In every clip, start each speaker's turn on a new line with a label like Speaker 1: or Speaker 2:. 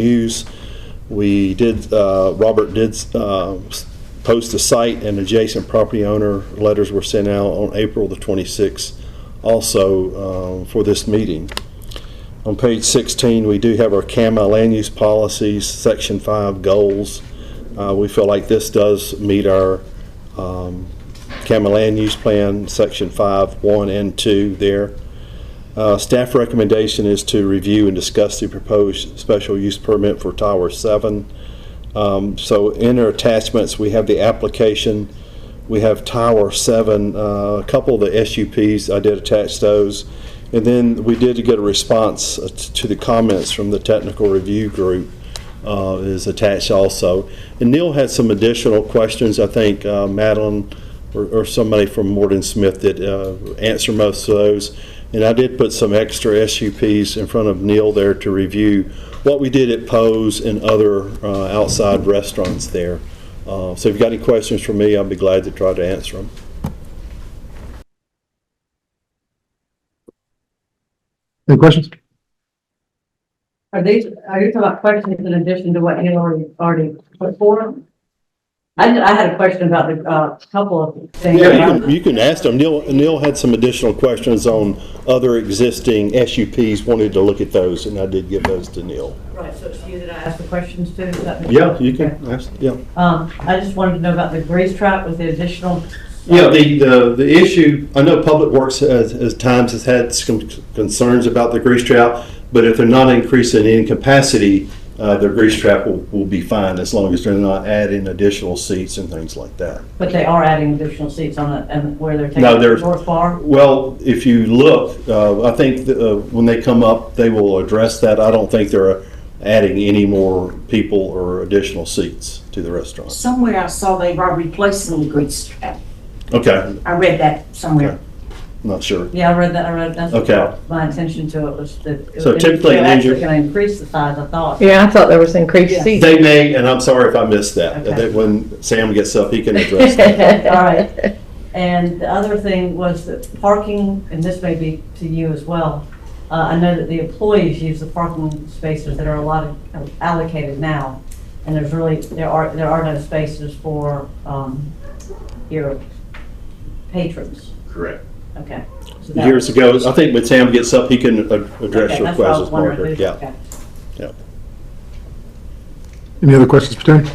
Speaker 1: News. We did, uh, Robert did uh, post the site and adjacent property owner letters were sent out on April the 26th also uh, for this meeting. On page 16, we do have our CAMA land use policies, section 5 goals. Uh, We feel like this does meet our um, CAMA land use plan, section 5, 1 and 2 there. Uh, Staff recommendation is to review and discuss the proposed special use permit for Tower 7. Um, So in our attachments, we have the application, we have Tower 7, uh, a couple of the SUPs, I did attach those. And then we did get a response uh, t- to the comments from the technical review group uh, is attached also. And Neil had some additional questions, I think uh, Madeline or or somebody from Morton Smith that uh, answer most of those. And I did put some extra SUPs in front of Neil there to review what we did at Poe's and other uh, outside restaurants there. Uh, So if you've got any questions for me, I'll be glad to try to answer them.
Speaker 2: Any questions?
Speaker 3: Are these, are you talking about questions in addition to what you already, already put forward? I, did- I had a question about the, uh, couple of things.
Speaker 1: Yeah, you can, you can ask them. Neil, Neil had some additional questions on other existing SUPs, wanted to look at those, and I did give those to Neil.
Speaker 3: Right, so it's you that I asked the questions to? is that-
Speaker 1: Yeah, you can ask, yeah.
Speaker 3: Um, I just wanted to know about the grease trap with the additional,
Speaker 1: Yeah, the, the, the issue, I know Public Works has, has times has had some concerns about the grease trap, but if they're not increasing in capacity, uh, their grease trap will, will be fine as long as they're not adding additional seats and things like that.
Speaker 3: but they are adding additional seats on it and where they're taking
Speaker 1: No,
Speaker 3: the
Speaker 1: there's-
Speaker 3: north bar?
Speaker 1: Well, if you look, uh, I think, that, uh, when they come up, they will address that. I don't think they're adding any more people or additional seats to the restaurant.
Speaker 4: Somewhere I saw they were replacing the grease trap.
Speaker 1: Okay,
Speaker 4: I read that somewhere.
Speaker 1: not sure.
Speaker 3: Yeah, I read that, I read, that's what
Speaker 1: Okay.
Speaker 3: caught my attention to it was that.
Speaker 1: So typically an
Speaker 3: They're actually
Speaker 1: injured-
Speaker 3: gonna increase the size, I thought.
Speaker 5: Yeah, I thought there was increased
Speaker 3: Yes.
Speaker 5: seating.
Speaker 1: They may, and I'm sorry if I missed that,
Speaker 3: Okay.
Speaker 1: that when Sam gets up, he can address that.
Speaker 3: All right. And the other thing was that parking, and this may be to you as well, uh, I know that the employees use the parking spaces that are allotted, allocated now, and there's really, there are, there are no spaces for um, your patrons.
Speaker 1: Correct.
Speaker 3: Okay. So that-
Speaker 1: Years ago, I think when Sam gets up, he can a- address
Speaker 3: Okay,
Speaker 1: your
Speaker 3: that's what I
Speaker 1: questions,
Speaker 3: was wondering.
Speaker 1: Margaret. Yeah,
Speaker 3: Okay.
Speaker 1: yeah.
Speaker 2: Any other questions for Terry?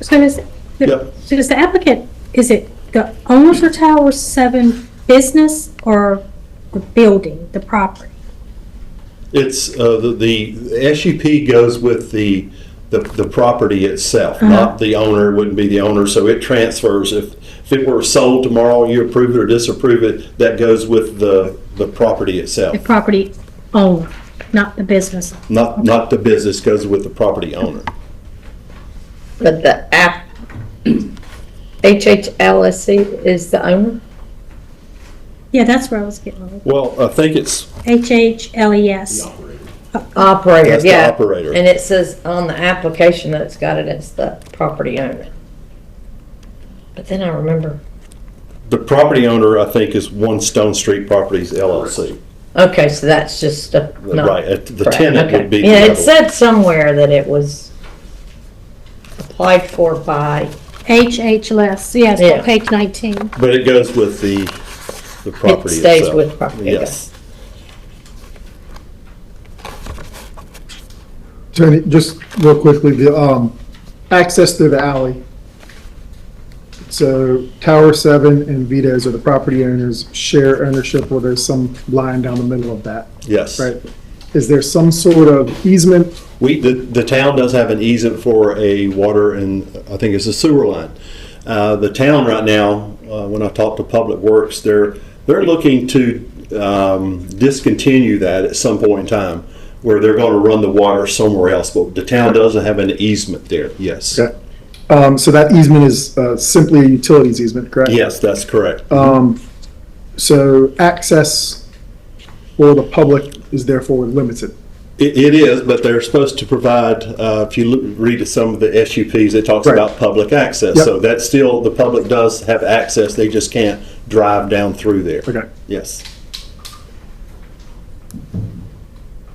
Speaker 6: So does,
Speaker 1: Yep.
Speaker 6: so does the applicant, is it the owners of Tower 7 business or the building, the property?
Speaker 1: It's, uh, the- the SUP goes with the, the- the property itself,
Speaker 5: Uh-huh.
Speaker 1: not the owner, It wouldn't be the owner, so it transfers. If, if it were sold tomorrow, you approve it or disapprove it, that goes with the, the property itself.
Speaker 6: The property owner, not the business.
Speaker 1: Not, not the business, goes with the property owner.
Speaker 5: But the app, HHLSC is the owner?
Speaker 6: Yeah, that's where I was getting at.
Speaker 1: Well, I think it's,
Speaker 6: H-H-L-E-S.
Speaker 5: Operator,
Speaker 1: That's the
Speaker 5: yeah.
Speaker 1: operator.
Speaker 5: And it says on the application that it's got it as the property owner. But then I remember,
Speaker 1: the property owner, I think, is One Stone Street Properties LLC.
Speaker 5: okay, so that's just a. not-
Speaker 1: Right, uh, the
Speaker 5: Correct,
Speaker 1: tenant
Speaker 5: okay.
Speaker 1: would be.
Speaker 5: Yeah,
Speaker 1: the
Speaker 5: it said somewhere that it was applied for by,
Speaker 6: H-H-L-E-S, E yes, on
Speaker 5: Yeah.
Speaker 6: page 19.
Speaker 1: But it goes with the, the
Speaker 5: it
Speaker 1: property
Speaker 5: stays
Speaker 1: itself.
Speaker 5: with property. okay.
Speaker 1: Yes.
Speaker 2: Attorney, just real quickly, the, um, access through the alley. So Tower Seven and Vito's are the property owners, share ownership, or there's some line down the middle of that,
Speaker 1: Yes.
Speaker 2: right? Is there some sort of easement?
Speaker 1: We, the, the town does have an easement for a water and, I think it's a sewer line. Uh, the town right now, uh, when I talk to Public Works, they're, they're looking to, um, discontinue that at some point in time, where they're gonna run the water somewhere else, but the town doesn't have an easement there, yes.
Speaker 2: Okay. Um, so that easement is, uh, simply a utilities easement, correct?
Speaker 1: Yes, that's correct.
Speaker 2: Um, so access for the public is therefore limited.
Speaker 1: It, it is, but they're supposed to provide, uh, if you loo- read at some of the SUPs, it talks
Speaker 2: Right.
Speaker 1: about public access.
Speaker 2: Yep.
Speaker 1: So that's still, the public does have access, they just can't drive down through there.
Speaker 2: Okay.
Speaker 1: Yes.